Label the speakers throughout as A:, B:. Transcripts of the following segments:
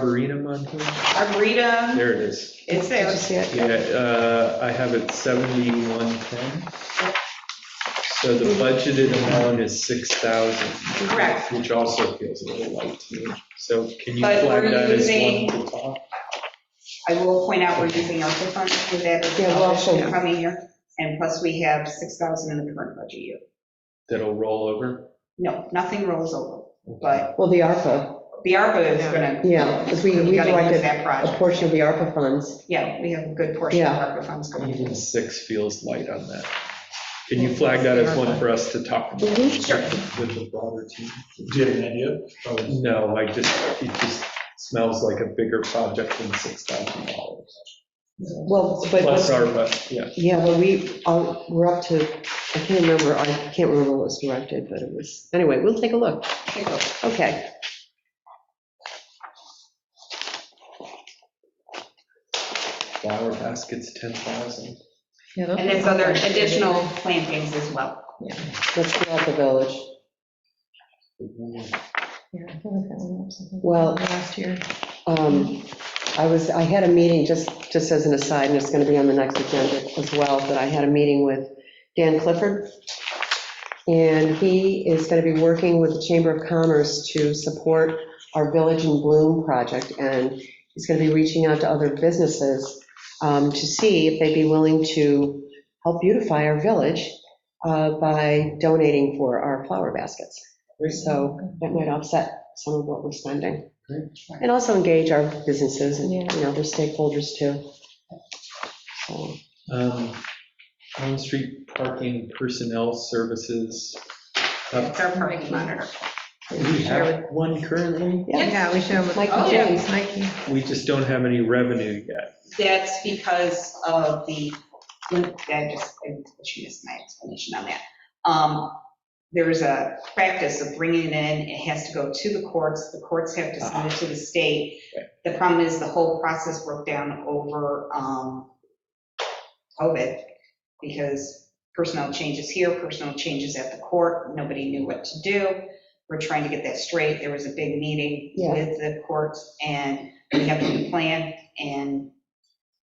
A: Arboretum on here?
B: Arboretum,
A: There it is.
B: it's
C: Did
B: there.
C: you see it?
A: Yeah, uh, I have it 7110. So the budgeted amount is 6,000.
B: Correct.
A: Which also feels a little light to me. So can you
B: But
A: flag
B: we're
A: that as
B: using-
A: one to top?
B: I will point out we're using our funds for that as
C: Yeah,
B: well
C: well,
B: this
C: so-
B: coming year. And plus, we have 6,000 in the current budget year.
A: That'll roll over?
B: No, nothing rolls over, but
C: Well, the ARPA,
B: the ARPA is gonna.
C: yeah, because we
B: We
C: we
B: gotta use
C: elected
B: that
C: a
B: project.
C: portion of the ARPA funds.
B: Yeah, we have a good portion of ARPA funds going.
A: Even six feels light on that. Can you flag that as one for us to talk about?
B: Sure.
A: With the broader team?
D: Do you have an idea? Oh,
A: No, I just, it just smells like a bigger project than $6,000.
C: Well,
A: Plus
C: but,
A: our, but, yeah.
C: yeah, but we, all- we're up to, I can't remember, I can't remember what was directed, but it was, anyway, we'll take a look.
B: Take a look.
C: Okay.
A: Flower baskets, 10,000.
B: And there's other additional plantings as well.
C: Let's go out the village. Well,
E: Last year.
C: Um, I was, I had a meeting, just, just as an aside, and it's going to be on the next agenda as well, but I had a meeting with Dan Clifford. And he is going to be working with the Chamber of Commerce to support our Village in Bloom project. And he's going to be reaching out to other businesses um, to see if they'd be willing to help beautify our village uh, by donating for our flower baskets. So that might offset some of what we're spending. And also engage our businesses and, you know, their stakeholders too. So,
A: Um, on-street parking personnel services. Uh,
B: That's our parking monitor.
A: We have one currently,
C: Yeah,
E: Yeah, we should have.
C: Mike
B: Oh,
C: and
B: yeah.
C: James.
E: Mikey.
A: we just don't have any revenue yet.
B: That's because of the, I just, I she missed my explanation on that. Um, There is a practice of bringing it in, it has to go to the courts, the courts have to send it to the state. The problem is the whole process broke down over um, COVID because personnel changes here, personnel changes at the court, nobody knew what to do. We're trying to get that straight. There was a big meeting
C: Yeah.
B: with the courts and we have a new plan and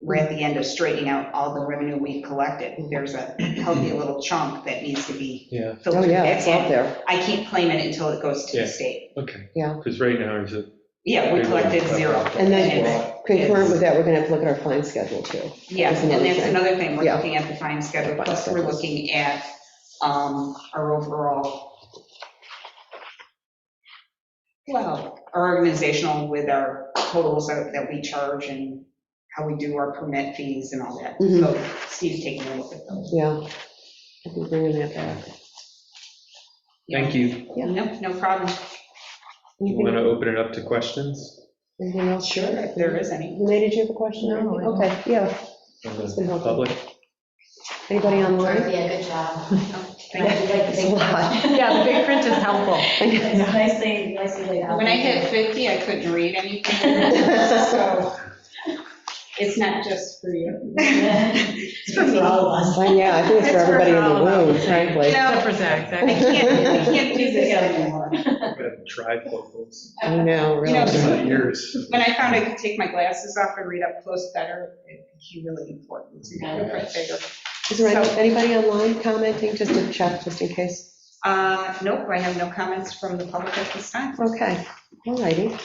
B: we're at the end of straightening out all the revenue we've collected. There's a healthy little chunk that needs to be
A: Yeah,
C: Oh,
B: filtered
C: yeah,
B: back
C: it's out
B: in.
C: there.
B: I can't claim it until it goes to
A: Yeah.
B: the state.
A: okay.
C: Yeah.
A: Because right now, it's a.
B: Yeah, we collected zero.
C: And then
B: it's-
C: concurrent with that, we're going to have to look at our fine schedule too.
B: Yeah,
C: That's
B: and
C: another
B: that's
C: thing.
B: another thing, we're
C: Yeah.
B: looking at the fine schedule,
C: Fine
B: plus we're
C: schedules.
B: looking at um, our overall, well, our organizational with our totals that that we charge and how we do our permit fees and all that.
C: Mhm.
B: So Steve's taking a look at those.
C: Yeah. I'll be bringing that back.
A: Thank you.
C: Yeah.
B: No, no problem,
A: You want
C: Anything
A: to open it up to questions?
C: anything else?
B: sure, if there is any.
C: Renee, did you have a question? or
E: No,
C: anything?
E: I
C: Okay, yeah.
A: from the
C: been helpful.
A: Public?
C: Anybody online?
F: Yeah, good job.
B: Thank you.
C: It's a lot.
E: Yeah, the big print is helpful.
F: It's nicely, nicely laid out.
B: When I hit 50, I couldn't read anything, so it's not just for you.
F: It's for all of us.
C: Well, Yeah, I think it's for
E: It's for
C: everybody in the
E: all of
C: room,
E: us, right?
C: frankly.
E: Except for Zach.
B: I
E: Zach.
B: can't, I can't do this anymore.
A: Trifocals.
C: I know, really.
A: Years.
B: When I found I could take my glasses off and read up close better, it became really important to have a print bigger.
C: Is there any- anybody online commenting, just to check, just in case?
B: Uh, Nope, I have no comments from the public at this time.
C: Okay, all righty.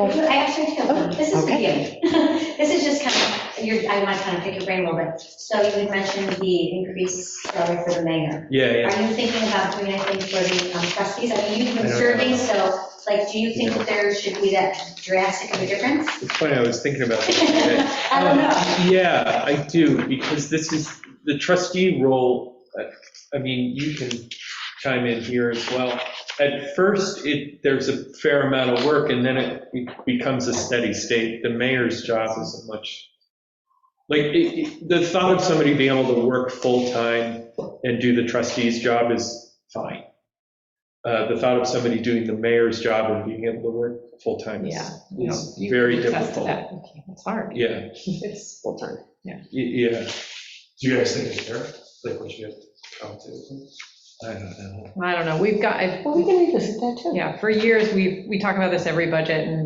F: I actually do. This is for
C: Okay.
F: you. This is just kind of, your I want to kind of pick your brain a little bit. So you had mentioned the increased salary for the mayor.
A: Yeah,
F: Are
A: yeah.
F: you thinking about doing anything for the um, trustees? I mean, you've
A: I
F: been
A: don't
F: serving,
A: know.
F: so like, do you think that there should be that drastic of a difference?
A: It's funny, I was thinking about this today.
F: I don't know.
A: Um, Yeah, I do, because this is, the trustee role, uh, I mean, you can chime in here as well. At first, it, there's a fair amount of work, and then it be- becomes a steady state. The mayor's job isn't much, like, it- it- the thought of somebody being able to work full-time and do the trustee's job is fine. Uh, The thought of somebody doing the mayor's job and being able to work full-time is,
E: Yeah.
A: is
E: You
A: very
E: can attest to
A: difficult.
E: that. It's hard.
A: Yeah.
E: It's full time.
A: Y- Yeah,
D: Do uh, you guys think it's fair? Like, what you have come to?
A: I don't know.
E: I don't know. We've got, I-
C: Well, we can revisit that too.
E: yeah, for years, we've, we talk about this every budget and